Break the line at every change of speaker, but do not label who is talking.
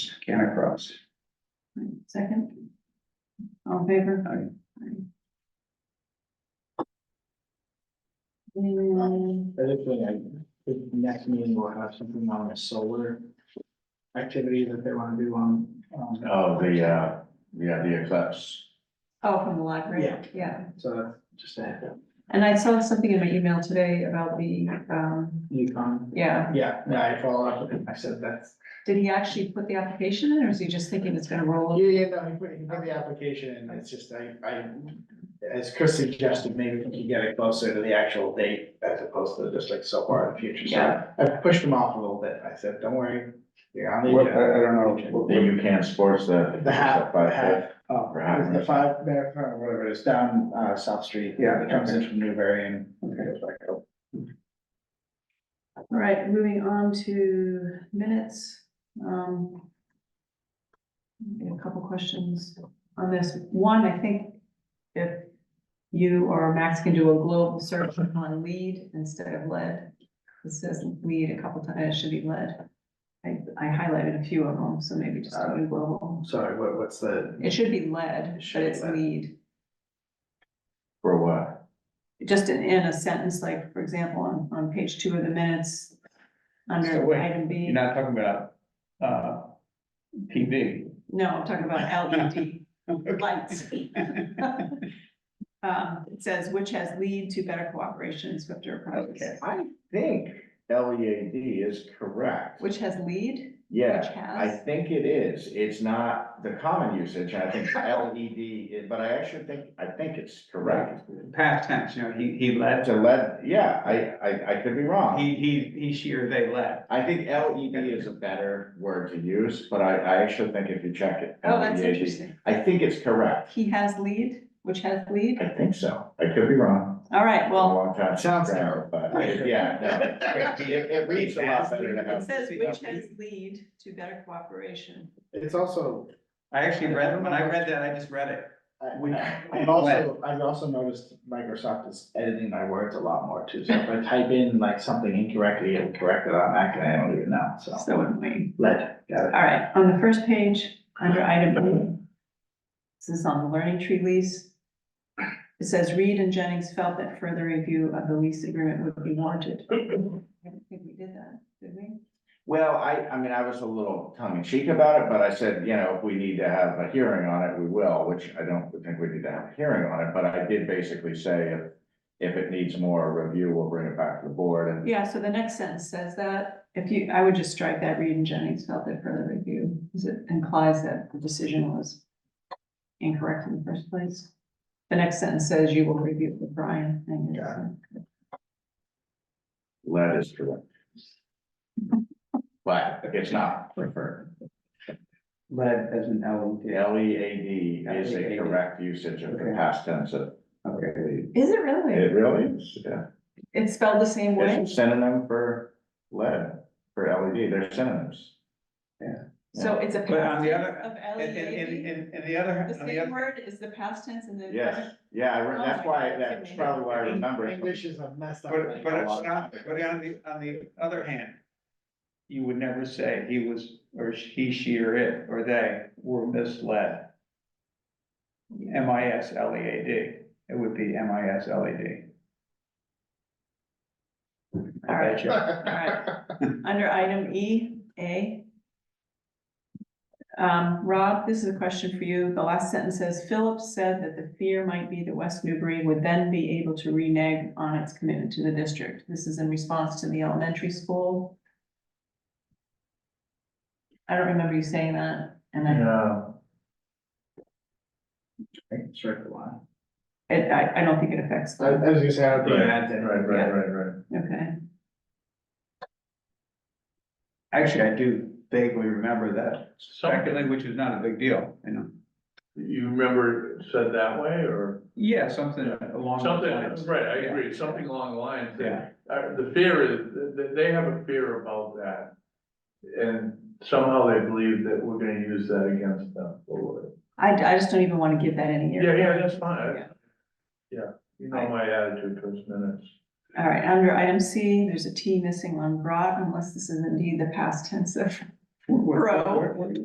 across.
Second? All in favor? Aye. And
Other thing, I, the next meeting will have something on the solar activity that they wanna do on, um,
Oh, the, uh, yeah, the eclipse.
Oh, from the library?
Yeah.
Yeah,
so just a heads up.
and I saw something in my email today about the, um,
Yukon.
yeah,
Yeah, yeah, I follow up, with him. I said that's,
did he actually put the application in, or is he just thinking it's gonna roll?
yeah,
over?
yeah, no, he put, he put the application, in. it's just, I, I, as Chris suggested, maybe we can get it closer to the actual date as opposed to just like so far in the future, so
Yeah.
I pushed him off a little bit, I said, don't worry, you're on the
What,
agenda.
I, I don't know, what- the UCAN sports, the.
The half,
by
the half, oh,
Or half.
the five, there, or whatever it is, down, uh, South Street.
Yeah.
It comes in from Newbury and goes back up.
All right, moving on to minutes, um. we have A couple questions on this, one, I think if you or Max can do a global search on lead instead of lead. It says lead a couple times, it should be lead. I, I highlighted a few of them, so maybe just do a global,
Sorry, what, what's the?
it should be lead, but it's
Lead.
lead.
For what?
Just in, in a sentence, like, for example, on, on page two of the minutes,
So
under
wait,
item B.
You're not talking about, uh, TV.
No, I'm talking about LED lights. Um, it says which has lead to better cooperation and swifter
Okay.
progress.
I think L E A D is correct.
Which has lead? Which
Yeah, I
has?
think it is. It's not the common usage. I think L E D, is- but I actually think, I think it's correct.
Past tense, you know, he, he
That's
left,
a lead, yeah, I, I, I could be wrong.
he, he, he, she or they left.
I think LED is a better word to use, but I, I actually think if you check it.
Oh, that's
LED.
interesting.
I think it's correct.
He has lead, which has lead?
I think so. I could be wrong.
All right,
Been a
well,
long time. since
Sounds
I've done it, But, it- yeah, no, it, it reads a lot better E to
it
have.
says which has lead to better cooperation.
It's also,
I actually read, when I read that, I just read it. We-
I- I've also, I've also noticed Microsoft is editing my words a lot more too, so if I type in like something incorrectly, it'll correct it on Mac and I don't even know, so.
So wouldn't we?
Lead, got it.
All right, on the first page, under item B. This is on the learning tree lease. It says Reed and Jennings felt that further review of the lease agreement would be warranted. I don't think we did that, did we?
Well, I, I mean, I was a little tongue in cheek about it, but I said, you know, if we need to have a hearing on it, we will, which I don't think we need to have a hearing on it, but I did basically say if. If it needs more review, we'll bring it back to the board and
Yeah, so the next sentence says that, if you, I would just strike that Reed and Jennings felt that further review, because it implies that the decision was incorrect in the first place. The next sentence says you will review it with Brian. and it's, uh,
Lead is correct. But it's not preferred.
Lead as an LED.
L E A D is a correct usage of the past tense of. Okay.
Is it really?
It really is, yeah.
It's spelled the same way?
It's a synonym for lead, for L E D, they're synonyms.
So it's a
But on
past
the
tense
other-
of
And, and, and,
LEAD.
and- and the other,
The
on the
same
other,
word is the past tense and the.
Yes, yeah, I re-
Oh
that's
my
why,
God,
that's
that's
probably why I remember. it.
English is a messed up.
but, but,
language.
it's not- but on the, on the other hand, you would never say he was, or he, she, or it, or they were misled. M I S L E A D, it would be M I S L E D.
All right, all right. Under item E, A. Um, Rob, this is a question for you. The last sentence says Phillips said that the fear might be that West Newbury would then be able to renege on its commitment to the district. This is in response to the elementary school. I don't remember you saying that, and I,
No. I think it's right the line.
it- I, I don't think it affects
I, I
them.
was gonna say, I don't think it adds anything.
Right, right, right, right.
Okay.
Actually, I do vaguely remember that, secondly, which is not a big deal, you know.
You remember it said that way or
Yeah, something along those lines.
something, right, I
Yeah.
agree, something along the lines. that-
Yeah,
Uh, the fear is, th- th- they have a fear about that. And somehow they believe that we're gonna use that against them. or-
I, I just don't even want to give that any
Yeah,
air.
yeah, that's fine.
Yeah.
I- Yeah, you know my attitude towards minutes.
All right, under item C, there's a T missing on brought, unless this is indeed the past tense of
What- what-
Bro.
what- what-